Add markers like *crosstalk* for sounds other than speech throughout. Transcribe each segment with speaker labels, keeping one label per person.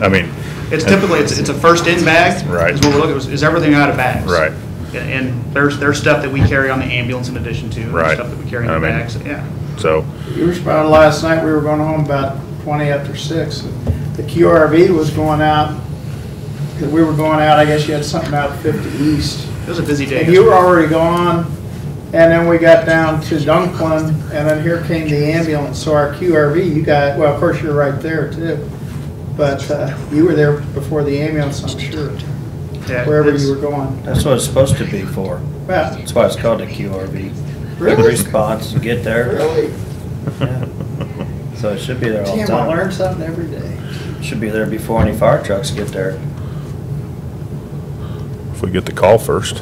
Speaker 1: I mean.
Speaker 2: It's typically, it's, it's a first-in bag.
Speaker 1: Right.
Speaker 2: Is what we're looking, is- is everything out of bags.
Speaker 1: Right.
Speaker 2: And and there's, there's stuff that we carry on the ambulance in addition to. and
Speaker 1: Right.
Speaker 2: Stuff that we carry in
Speaker 1: I
Speaker 2: the
Speaker 1: mean-
Speaker 2: bags, yeah.
Speaker 1: So,
Speaker 3: We were spotted last night, we were going home about 20 after 6. The QRV was going out, we were going out, I guess you had something out 50 East.
Speaker 2: It was a busy day.
Speaker 3: And you were already gone, and then we got down to Dunklin, and then here came the ambulance. So our QRV, you got, well, of course, you're right there too. But uh, you were there before the ambulance, I'm sure,
Speaker 2: Yeah,
Speaker 3: wherever
Speaker 2: it's-
Speaker 3: you were going.
Speaker 4: That's what it's supposed to be for.
Speaker 3: Well,
Speaker 4: That's why it's called a QRV.
Speaker 3: Really?
Speaker 4: Three spots, get there.
Speaker 3: Really?
Speaker 4: Yeah. So it should be there all the
Speaker 3: Damn, I learn
Speaker 4: time.
Speaker 3: something every day.
Speaker 4: Should be there before any fire trucks get there.
Speaker 1: if we get the call first,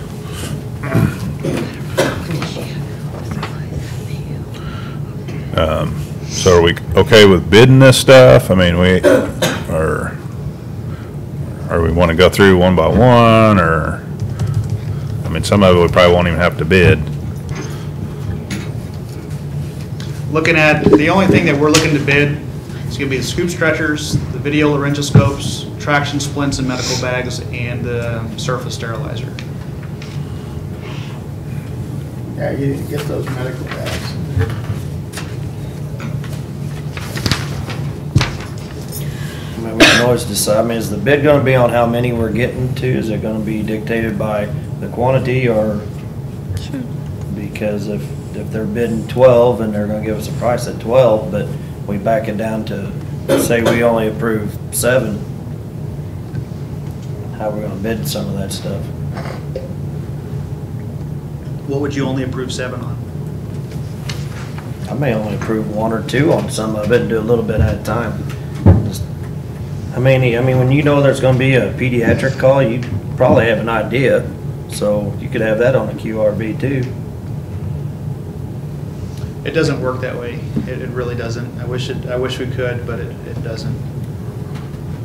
Speaker 1: Um, so are we okay with bidding this stuff? I mean, we, or, or we want to go through one by one, or, I mean, some of it we probably won't even have to bid.
Speaker 2: Looking at, the only thing that we're looking to bid is gonna be the scoop stretchers, the video laryngoscopes, traction splints and medical bags, and the surface sterilizer.
Speaker 3: Yeah, you need to get those medical bags.
Speaker 4: I mean, we can always decide, I mean, is the bid gonna be on how many we're getting to? Is it gonna be dictated by the quantity or? Because if, if they're bidding twelve and they're gonna give us a price at twelve, but we back it down to, say we only approve seven, how we gonna bid some of that stuff?
Speaker 2: What would you only approve seven on?
Speaker 4: I may only approve one or two on some of it and do a little bit at a time. Just- I mean, I mean, when you know there's gonna be a pediatric call, you probably have an idea, so you could have that on a QRB too.
Speaker 2: It doesn't work that way. It, it really doesn't. I wish it, I wish we could, but it, it doesn't.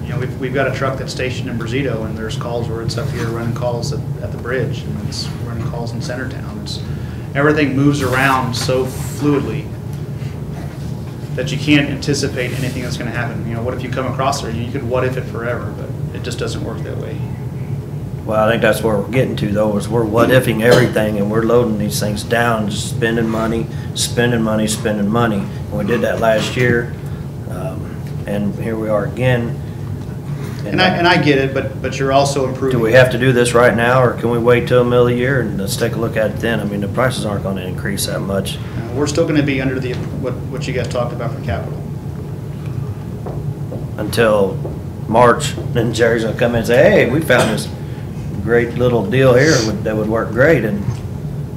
Speaker 2: You know, we've, we've got a truck that's stationed in Brazito, and there's calls where it's up here running calls at, at the bridge, and it's running calls in Centertown. It's, everything moves around so fluidly that you can't anticipate anything that's gonna happen. You know, what if you come across there? You could what if it forever, but it just doesn't work that way.
Speaker 4: Well, I think that's where we're getting to though, is we're what-ifing everything and we're loading these things down, just spending money, spending money, spending money. And we did that last year, um, and here we are again.
Speaker 2: And I, and I get it, but, but you're also improving.
Speaker 4: Do we have to do this right now, or can we wait till the middle of the year and let's take a look at it then? I mean, the prices aren't gonna increase that much.
Speaker 2: Uh, We're still gonna be under the, what, what you guys talked about for capital.
Speaker 4: until March, then Jerry's gonna come in and say, hey, we found this great little deal here would- that would work great, and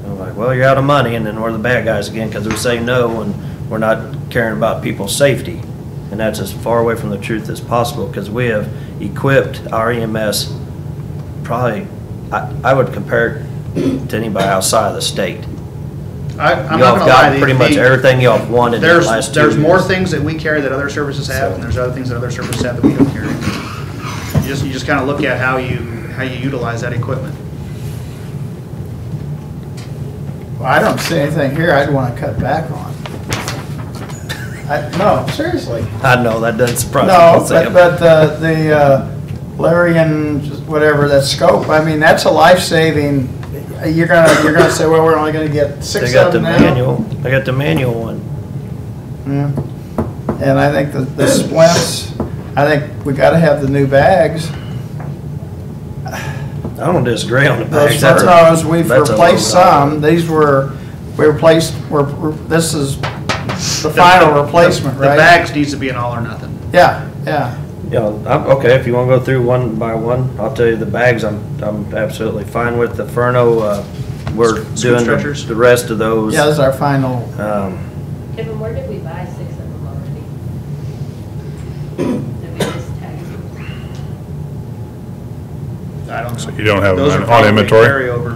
Speaker 4: I'm like, well, you're out of money, and then we're the bad guys again, because we say no, and we're not caring about people's safety. And that's as far away from the truth as possible, because we have equipped our EMS probably, I, I would compare it to anybody outside of the state.
Speaker 2: I, I'm not gonna lie.
Speaker 4: Y'all have
Speaker 2: the-
Speaker 4: got pretty much
Speaker 2: the-
Speaker 4: everything y'all have wanted in the
Speaker 2: There's,
Speaker 4: last two
Speaker 2: there's more
Speaker 4: years.
Speaker 2: things that we carry that other services have,
Speaker 4: So-
Speaker 2: and there's other things that other services have that we don't carry. You just, you just kinda look at how you, how you utilize that equipment.
Speaker 3: Well, I don't see anything here I'd want to cut back on. I, no, seriously.
Speaker 4: I know, that doesn't surprise me.
Speaker 3: No,
Speaker 4: Sam.
Speaker 3: but, but uh, the uh, Larry and just whatever, that scope, I mean, that's a life-saving, you're gonna, you're gonna say, well, we're only gonna get
Speaker 4: They
Speaker 3: six
Speaker 4: got
Speaker 3: of
Speaker 4: the
Speaker 3: them now.
Speaker 4: manual, they got the manual one.
Speaker 3: Yeah. And I think the, the splints, I think we gotta have the new bags.
Speaker 4: I don't disagree on the
Speaker 3: Those
Speaker 4: bags. That's a-
Speaker 3: Furnos, we've
Speaker 4: that's a
Speaker 3: replaced
Speaker 4: low dollar.
Speaker 3: some, these were, we replaced, we're, we're- this is the final replacement,
Speaker 2: The
Speaker 3: right?
Speaker 2: bags needs to be an all or nothing.
Speaker 3: Yeah, yeah.
Speaker 4: Yeah, I'm, okay, if you wanna go through one by one, I'll tell you the bags, I'm, I'm absolutely fine with. The Furno, uh, we're
Speaker 2: Scoop
Speaker 4: doing the-
Speaker 2: stretchers?
Speaker 4: the rest of those.
Speaker 3: Yeah, this is our final.
Speaker 4: Um,
Speaker 5: Kevin, where did we buy six of them already? Did we just tag them?
Speaker 2: I don't know.
Speaker 1: So you don't have
Speaker 2: Those
Speaker 1: them
Speaker 2: are
Speaker 1: on
Speaker 2: probably a
Speaker 1: inventory? *clears throat*
Speaker 2: Carryover.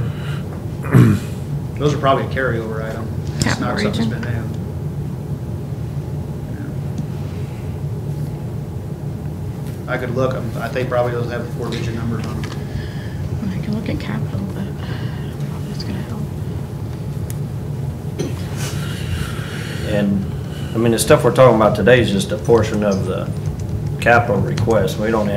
Speaker 2: Those are probably a carryover item. It's not
Speaker 6: Capital
Speaker 2: something
Speaker 6: region.
Speaker 2: that's been new. I could look, I'm- I think probably those have four-digit numbers on them.
Speaker 6: I can look at capital, but I don't know if that's gonna help.
Speaker 4: and, I mean, the stuff we're talking about today is just a portion of the capital request. We don't